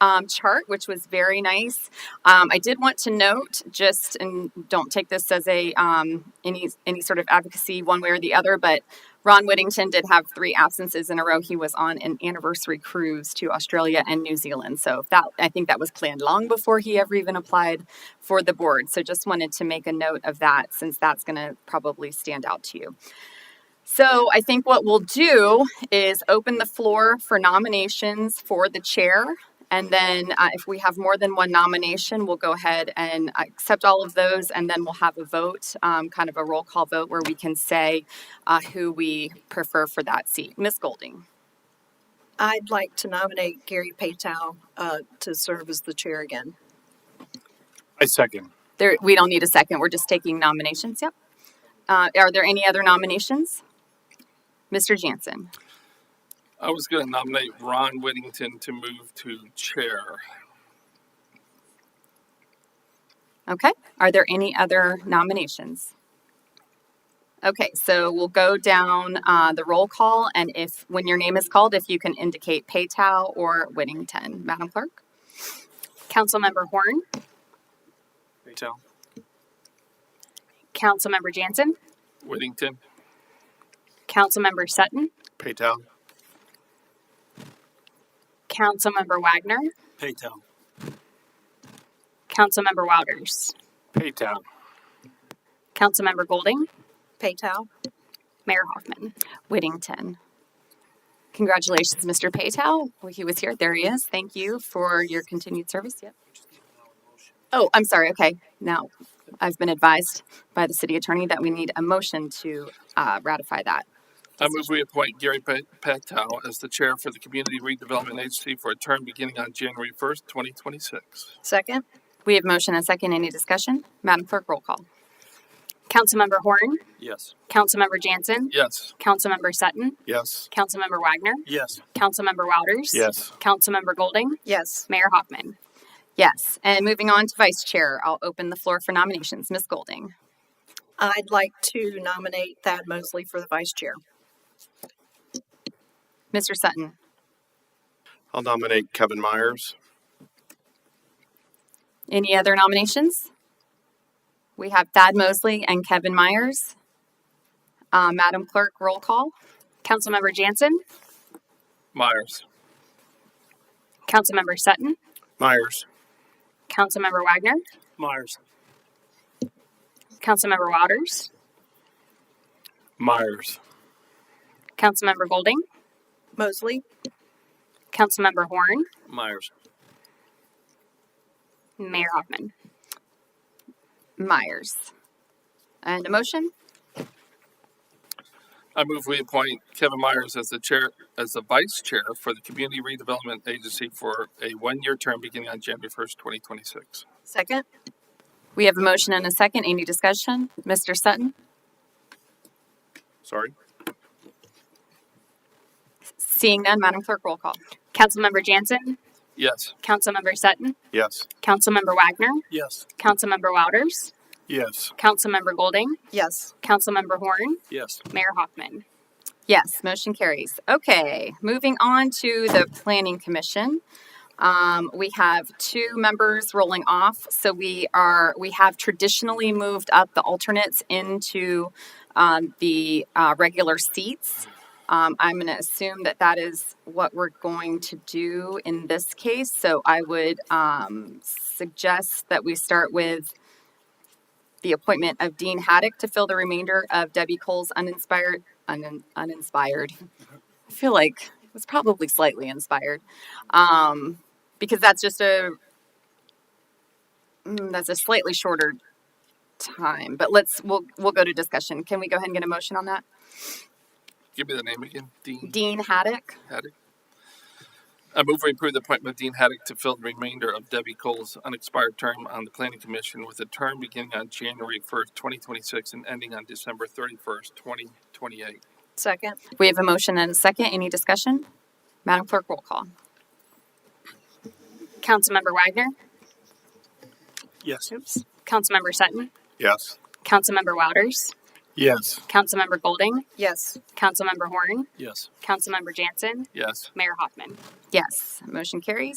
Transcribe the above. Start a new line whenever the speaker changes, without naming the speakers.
um, chart, which was very nice. Um, I did want to note, just and don't take this as a um, any any sort of advocacy one way or the other, but Ron Whittington did have three absences in a row. He was on an anniversary cruise to Australia and New Zealand, so that I think that was planned long before he ever even applied for the board. So just wanted to make a note of that, since that's going to probably stand out to you. So I think what we'll do is open the floor for nominations for the chair. And then uh, if we have more than one nomination, we'll go ahead and accept all of those. And then we'll have a vote, um, kind of a roll call vote where we can say uh, who we prefer for that seat. Ms. Golding.
I'd like to nominate Gary Paytow uh, to serve as the chair again.
I second.
There, we don't need a second. We're just taking nominations. Yep. Uh, are there any other nominations? Mr. Jansen.
I was going to nominate Ron Whittington to move to chair.
Okay. Are there any other nominations? Okay, so we'll go down uh, the roll call, and if, when your name is called, if you can indicate Paytow or Whittington, Madam Clerk.
Councilmember Horn,
Patel.
Councilmember Jansen,
Whittington.
Councilmember Sutton,
Patel.
Councilmember Wagner,
Patel.
Councilmember Wouters,
Patel.
Councilmember Golding,
Paytow?
Mayor Hoffman.
Whittington. Congratulations, Mr. Paytow. Well, he was here. There he is. Thank you for your continued service. Yep. Oh, I'm sorry. Okay. Now, I've been advised by the city attorney that we need a motion to uh, ratify that.
I move we appoint Gary Pa- Patel as the chair for the Community Redevelopment Agency for a term beginning on January 1st, 2026.
Second?
We have motion and second. Any discussion? Madam Clerk, roll call.
Councilmember Horn,
Yes.
Councilmember Jansen,
Yes.
Councilmember Sutton,
Yes.
Councilmember Wagner,
Yes.
Councilmember Wouters,
Yes.
Councilmember Golding,
Yes.
Mayor Hoffman.
Yes. And moving on to vice chair, I'll open the floor for nominations. Ms. Golding.
I'd like to nominate Thad Mosley for the vice chair.
Mr. Sutton.
I'll nominate Kevin Myers.
Any other nominations? We have Thad Mosley and Kevin Myers. Uh, Madam Clerk, roll call.
Councilmember Jansen,
Myers.
Councilmember Sutton,
Myers.
Councilmember Wagner,
Myers.
Councilmember Wouters,
Myers.
Councilmember Golding,
Mosley?
Councilmember Horn,
Myers.
Mayor Hoffman.
Myers. And a motion?
I move we appoint Kevin Myers as the chair, as the vice chair for the Community Redevelopment Agency for a one-year term beginning on January first, twenty twenty-six.
Second?
We have a motion and a second. Any discussion? Mr. Sutton?
Sorry?
Seeing none, Madam Clerk, roll call.
Councilmember Jansen,
Yes.
Councilmember Sutton,
Yes.
Councilmember Wagner,
Yes.
Councilmember Wouters,
Yes.
Councilmember Golding,
Yes.
Councilmember Horn,
Yes.
Mayor Hoffman.
Yes, motion carries. Okay, moving on to the Planning Commission. Um, we have two members rolling off, so we are we have traditionally moved up the alternates into um, the uh, regular seats. Um, I'm going to assume that that is what we're going to do in this case. So I would um, suggest that we start with the appointment of Dean Haddock to fill the remainder of Debbie Cole's uninspired, un, uninspired. I feel like it was probably slightly inspired, um, because that's just a mm, that's a slightly shorter time. But let's we'll we'll go to discussion. Can we go ahead and get a motion on that?
Give me the name again, Dean
Dean Haddock.
Haddock. I move we approve the appointment of Dean Haddock to fill the remainder of Debbie Cole's unexpired term on the Planning Commission with a term beginning on January first, twenty twenty-six and ending on December thirty-first, twenty twenty-eight.
Second?
We have a motion and a second. Any discussion? Madam Clerk, roll call.
Councilmember Wagner,
Yes.
oops, Councilmember Sutton,
Yes.
Councilmember Wouters,
Yes.
Councilmember Golding,
Yes.
Councilmember Horn,
Yes.
Councilmember Jansen,
Yes.
Mayor Hoffman.
Yes, motion carries.